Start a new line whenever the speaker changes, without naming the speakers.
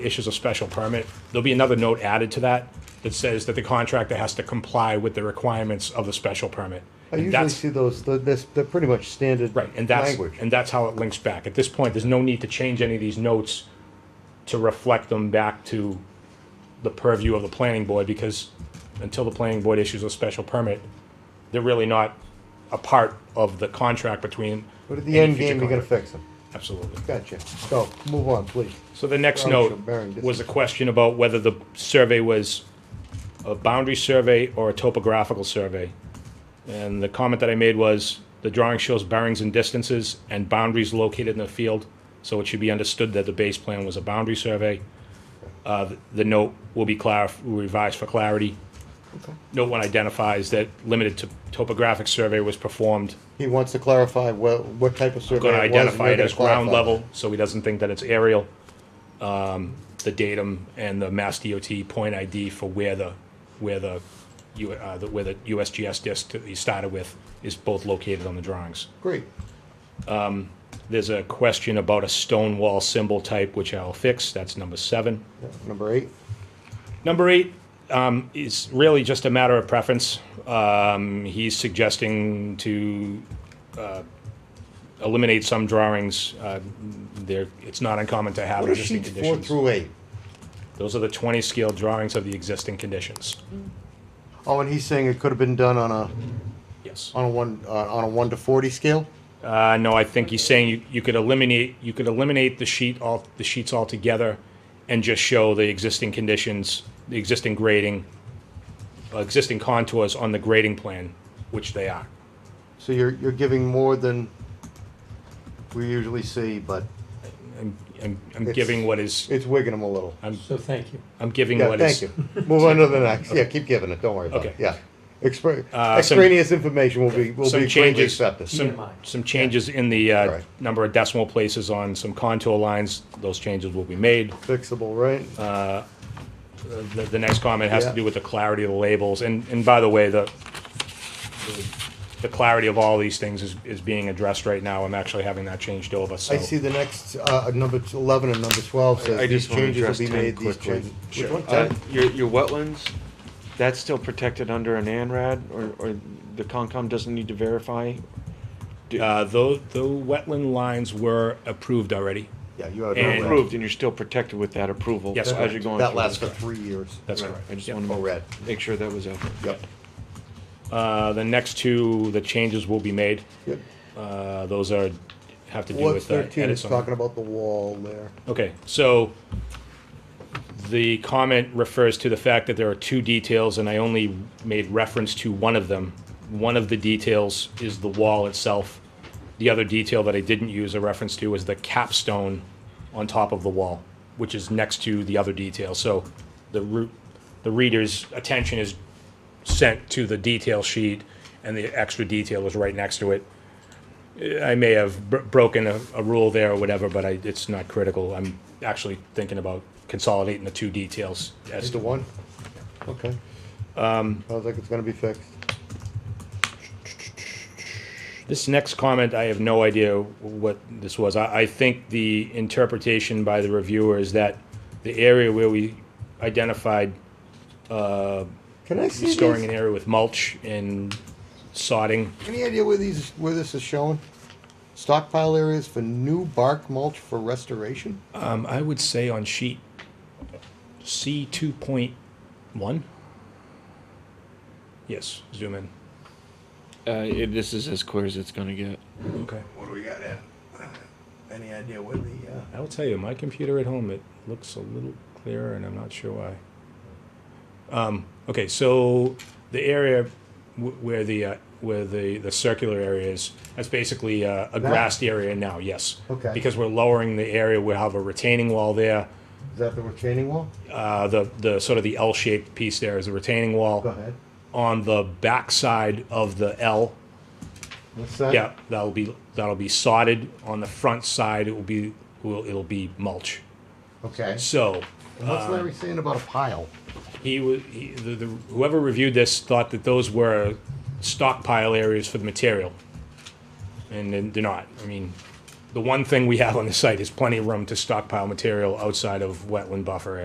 issues a special permit, there'll be another note added to that that says that the contractor has to comply with the requirements of the special permit.
I
And
usually
that's-
see those, th- this, they're pretty much standard
Right, and that's,
language.
and that's how it links back. At this point, there's no need to change any of these notes to reflect them back to the purview of the planning board, because until the planning board issues a special permit, they're really not a part of the contract between.
But at the end
any future
game, you're gonna
contract.
fix them.
Absolutely.
Gotcha. So, move on, please.
So the next
Probably
note
should bearing
was a question about whether the survey was a boundary survey or a topographical survey. And the comment that I made was, the drawing shows bearings and distances and boundaries located in the field, so it should be understood that the base plan was a boundary survey. Uh, the- the note will be clarif, revised for clarity. Note one identifies that limited to topographic survey was performed
He wants to clarify what, what type of survey
going to
it was. and
identify
you're
it
gonna
as ground
clarify.
level, so he doesn't think that it's aerial. Um, The datum and the Mass DOT point ID for where the, where the, U- uh, the- where the USGS disk that he started with is both located on the drawings.
Great.
There's a question about a stone wall symbol type, which I'll fix, that's number seven.
Yeah, Number eight,
Number eight um, is really just a matter of preference. Um, he's suggesting to uh, eliminate some drawings. Uh, there, it's not uncommon to have
what are
existing
sheets four
conditions.
through eight?
Those are the 20 scale drawings of the existing conditions.
Oh, and he's saying it could have been done on a,
Yes.
on a one, uh, on a one to forty scale?
Uh, no, I think he's saying you, you could eliminate you could eliminate the sheet all the sheets altogether, and just show the existing conditions, the existing grading, uh, existing contours on the grading plan, which they are.
So you're, you're giving more than we usually see, but
I'm, I'm
It's-
giving what is
it's wigging them a little.
So thank you.
I'm giving
Yeah,
what
thank
is
you. Move on to the next. Yeah, keep giving it. Don't worry about it.
Okay.
Yeah. Expr-
Uh, some-
Extraneous information will be, will
some
be greatly
changes.
accepted.
Some,
TMI.
some changes in the uh,
Right.
number of decimal places on some contour lines. Those changes will be made. Uh,
Fixable, right?
The, the next comment has to
Yeah.
do with the clarity of the labels. And and by the way, the the- the clarity of all these things is, is being addressed right now. I'm actually having that changed over. So
I see the next, uh, number t- eleven and number twelve
I
says these
just wanna
changes will
address
be
10
made, these
quickly.
changes.
Sure.
Which one?
Uh,
Ten?
your, your wetlands, that's still protected under an ANRAD, or, or the Concom doesn't need to verify?
uh, those the wetland lines were approved already.
Yeah, you have.
And-
red.
Approved, and you're still protected with that approval
Yes,
as
correct.
you're going through.
That lasts for three years.
That's
Right,
correct.
I just
Yep.
wanted
Oh, red.
to make sure that was out.
Yep.
Uh, the next two, the changes will be made.
Yep.
Uh, those are have to do
What's
with the
thirteen?
edits
It's
on-
talking about the wall there.
Okay, so the comment refers to the fact that there are two details, and I only made reference to one of them. One of the details is the wall itself. The other detail that I didn't use a reference to is the capstone on top of the wall, which is next to the other detail. So the root, the reader's attention is sent to the detail sheet, and the extra detail is right next to it. I may have br- broken a, a rule there or whatever, but I, it's not critical. I'm actually thinking about consolidating the two details. As
Just the
to,
one? Okay. Um. Sounds like it's gonna be fixed.
this next comment, I have no idea what this was. I, I think the interpretation by the reviewer is that the area where we identified
Can I see
restoring
these?
an area with mulch and sodding,
Any idea where these, where this is showing? Stockpile areas for new bark mulch for restoration?
um, I would say on sheet C two point one. Yes, zoom in.
Uh, it- this is as clear as it's gonna get.
Okay.
What do we got in? Any idea where the, uh?
I'll tell you, my computer at home, it looks a little clearer, and I'm not sure why. Um, okay, so the area w- where the uh, where the, the circular area is, that's basically uh, a grassed area now. Yes.
Okay.
Because we're lowering the area, we have a retaining wall there.
Is that the retaining wall?
Uh, the the sort of the L-shaped piece there is a retaining wall.
Go ahead.
On the backside of the L,
What's that?
yeah, that'll be that'll be sodded. On the front side, it will be will it'll be mulch.
Okay.
So.
And What's Larry saying about a pile?
he was he, the, the, whoever reviewed this thought that those were stockpile areas for the material, and then they're not. I mean, the one thing we have on the site is plenty of room to stockpile material outside of wetland buffer